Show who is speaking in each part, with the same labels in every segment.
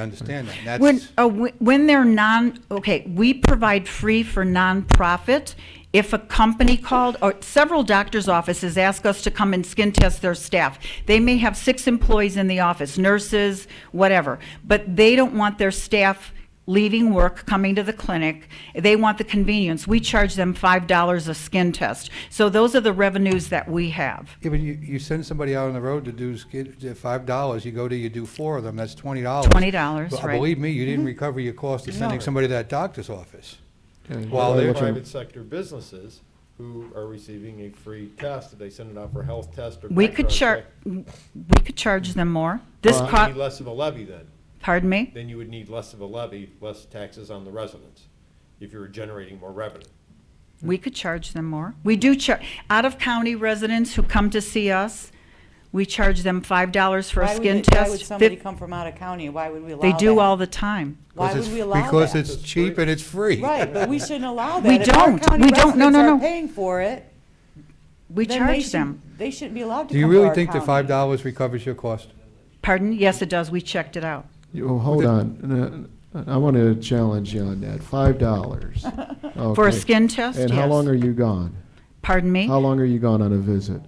Speaker 1: I understand that. and
Speaker 2: When,
Speaker 1: that's-
Speaker 2: uh, wh- when they're non, okay, we provide free for nonprofit. If a company called, or several doctor's offices ask us to come and skin test their staff, they may have six employees in the office, nurses, whatever, but they don't want their staff leaving work, coming to the clinic. They want the convenience. We charge them $5 a skin test. So those are the revenues that we have.
Speaker 1: Yeah, but you, you send somebody out on the road to do, skid- to five dollars, you go to, you do four of them, that's twenty dollars.
Speaker 2: $20, right.
Speaker 1: Believe me, you
Speaker 3: Mm-hmm.
Speaker 1: didn't recover your cost of sending somebody to that doctor's office.
Speaker 4: And
Speaker 1: While
Speaker 4: what
Speaker 1: they're
Speaker 4: you-
Speaker 5: private sector businesses who are receiving a free test, if they send it out for health test or.
Speaker 2: We could
Speaker 5: background
Speaker 2: char, we could charge them more. This
Speaker 5: check, You would
Speaker 2: cost,
Speaker 5: need less of a levy then.
Speaker 2: pardon me?
Speaker 5: Then you would need less of a levy, less taxes on the residents, if you were generating more revenue.
Speaker 2: We could charge them more. We do charge, out-of-county residents who come to see us, we charge them $5 for a
Speaker 3: Why would
Speaker 2: skin
Speaker 3: it- Why would
Speaker 2: test.
Speaker 3: somebody
Speaker 2: Fif-
Speaker 3: come from out of county? Why would we allow
Speaker 2: They
Speaker 3: that?
Speaker 2: do all the time.
Speaker 3: Why
Speaker 1: Because it's-
Speaker 3: would we allow
Speaker 1: Because
Speaker 3: that?
Speaker 1: it's
Speaker 5: It's
Speaker 1: cheap
Speaker 5: free.
Speaker 1: and it's free.
Speaker 3: Right, but we shouldn't allow that.
Speaker 2: We
Speaker 3: If our
Speaker 2: don't.
Speaker 3: county
Speaker 2: We don't. No,
Speaker 3: residents
Speaker 2: no, no.
Speaker 3: are paying for it,
Speaker 2: We
Speaker 3: then they
Speaker 2: charge
Speaker 3: should-
Speaker 2: them.
Speaker 3: They shouldn't be allowed to
Speaker 1: Do you
Speaker 3: come to
Speaker 1: really
Speaker 3: our
Speaker 1: think that
Speaker 3: county.
Speaker 1: five dollars recovers your cost?
Speaker 2: Pardon? Yes, it does. We checked it out.
Speaker 4: you- well, hold on, Uh, I want to challenge you on that, five dollars.
Speaker 2: For a skin test,
Speaker 4: And how
Speaker 2: yes.
Speaker 4: long are you gone?
Speaker 2: Pardon me?
Speaker 4: How long are you gone on a visit?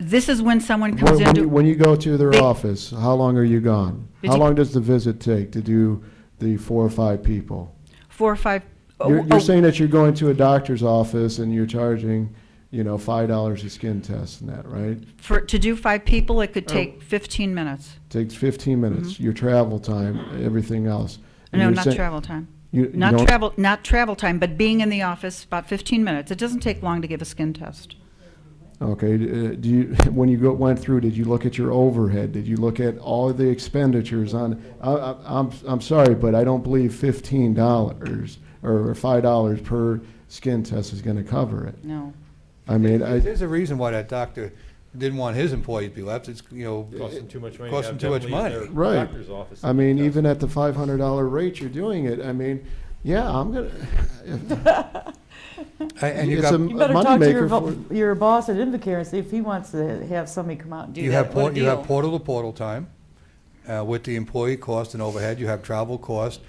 Speaker 2: This is when someone
Speaker 4: When-
Speaker 2: comes
Speaker 4: When you-
Speaker 2: into,
Speaker 4: when you go to their
Speaker 2: They-
Speaker 4: office, how long are you gone?
Speaker 2: Did
Speaker 4: How
Speaker 2: you-
Speaker 4: long does the visit take to do the four or five people?
Speaker 2: four or five. oh,
Speaker 4: You're,
Speaker 2: oh,
Speaker 4: you're saying that you're going to a doctor's office and you're charging, you know, five dollars a skin test and that, right?
Speaker 2: For, to do five people, it could
Speaker 4: Oh.
Speaker 2: take 15 minutes.
Speaker 4: Takes fifteen minutes, your travel time, everything else. And
Speaker 2: Mm-hmm. No,
Speaker 4: you're
Speaker 2: not
Speaker 4: saying-
Speaker 2: travel time.
Speaker 4: you- you
Speaker 2: Not
Speaker 4: don't-
Speaker 2: travel, not travel time, but being in the office, about 15 minutes. It doesn't take long to give a skin test.
Speaker 4: Okay, d- uh, do you, when you go, went through, did you look at your overhead? Did you look at all the expenditures on, I, I, I'm, I'm sorry, but I don't believe fifteen dollars or five dollars per skin test is gonna cover it.
Speaker 3: No.
Speaker 4: I mean, I,
Speaker 1: There's a reason why that doctor didn't want his employees to be left, it's, you know.
Speaker 5: Costs them too much money. to
Speaker 1: Costs them
Speaker 5: have
Speaker 1: too much
Speaker 5: leave their
Speaker 1: money.
Speaker 4: Right.
Speaker 5: Doctor's office.
Speaker 4: I mean, even at the five hundred dollar rate you're doing it, I mean, yeah, I'm gonna,
Speaker 1: A- And you
Speaker 4: it's a
Speaker 1: got,
Speaker 4: m-
Speaker 3: You better talk to
Speaker 4: moneymaker
Speaker 3: your,
Speaker 4: for.
Speaker 3: vo- your boss at Invacare and see if he wants to have somebody come out and do
Speaker 1: you
Speaker 3: that.
Speaker 1: have,
Speaker 3: What a
Speaker 1: port- you have
Speaker 3: deal.
Speaker 1: portal to portal time, uh, with the employee cost and overhead, you have travel cost.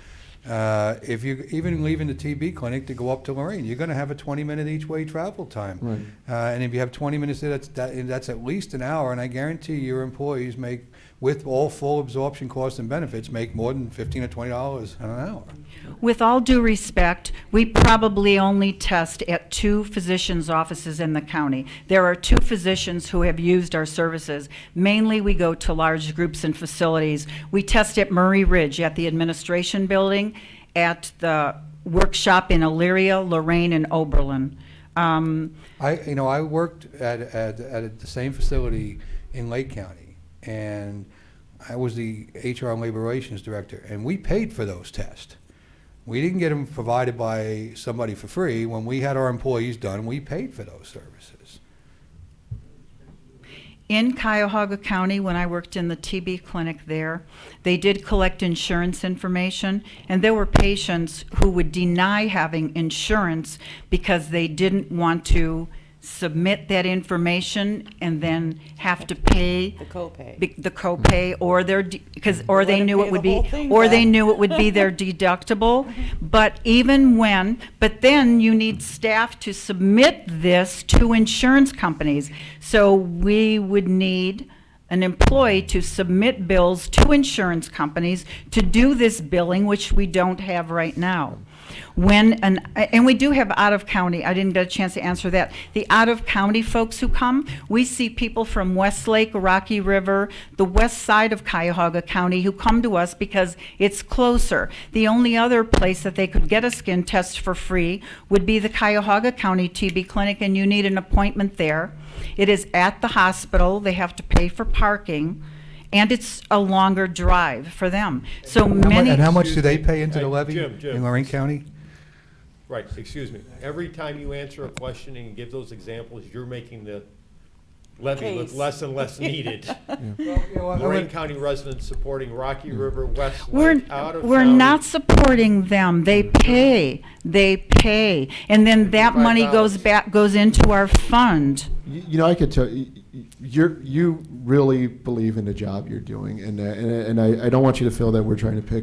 Speaker 1: Uh, if you, even leaving the TB clinic to go up to Lorraine, you're gonna have a twenty-minute each-way travel time.
Speaker 4: Right.
Speaker 1: Uh, and if you have twenty minutes there, that's, that, that's at least an hour, and I guarantee your employees make, with all full absorption costs and benefits, make more than fifteen or twenty dollars an hour.
Speaker 2: With all due respect, we probably only test at two physicians' offices in the county. There are two physicians who have used our services. Mainly, we go to large groups and facilities. We test at Murray Ridge, at the administration building, at the workshop in Elyria, Lorraine, and Oberlin. Um,
Speaker 1: I, you know, I worked at, at, at the same facility in Lake County, and I was the HR and Labor Relations Director, and we paid for those tests. We didn't get them provided by somebody for free. When we had our employees done, we paid for those services.
Speaker 2: In Cuyahoga County, when I worked in the TB clinic there, they did collect insurance information, and there were patients who would deny having insurance because they didn't want to submit that information and then have to pay
Speaker 3: The copay.
Speaker 2: be- the copay or their, because, or
Speaker 3: They
Speaker 2: they
Speaker 3: wanna
Speaker 2: knew it
Speaker 3: pay
Speaker 2: would
Speaker 3: the
Speaker 2: be,
Speaker 3: whole thing
Speaker 2: or they
Speaker 3: back.
Speaker 2: knew it would be their deductible. But even when, but then you need staff to submit this to insurance companies. So we would need an employee to submit bills to insurance companies to do this billing, which we don't have right now. When, an and we do have out-of-county, I didn't get a chance to answer that. The out-of-county folks who come, we see people from Westlake, Rocky River, the west side of Cuyahoga County who come to us because it's closer. The only other place that they could get a skin test for free would be the Cuyahoga County TB Clinic, and you need an appointment there. It is at the hospital, they have to pay for parking, and it's a longer drive for them. So
Speaker 1: How mu-
Speaker 2: many.
Speaker 1: and how much do they pay into the
Speaker 5: Hey,
Speaker 1: levy
Speaker 5: Jim, Jim.
Speaker 1: in Lorraine County?
Speaker 5: Right, excuse me. Every time you answer a question and give those examples, you're making the levy look
Speaker 3: Case.
Speaker 5: less and less needed. Lorraine
Speaker 1: Lorraine-
Speaker 5: County residents supporting Rocky River,
Speaker 2: We're,
Speaker 5: Westlake, out of
Speaker 2: we're
Speaker 5: county.
Speaker 2: not supporting them. They pay, they pay. And then that money goes
Speaker 5: $55.
Speaker 2: back, goes into our fund.
Speaker 4: You you know, I could tell, you, you- you're, you really believe in the job you're doing, and uh, and, and I, I don't want you to feel that we're trying to pick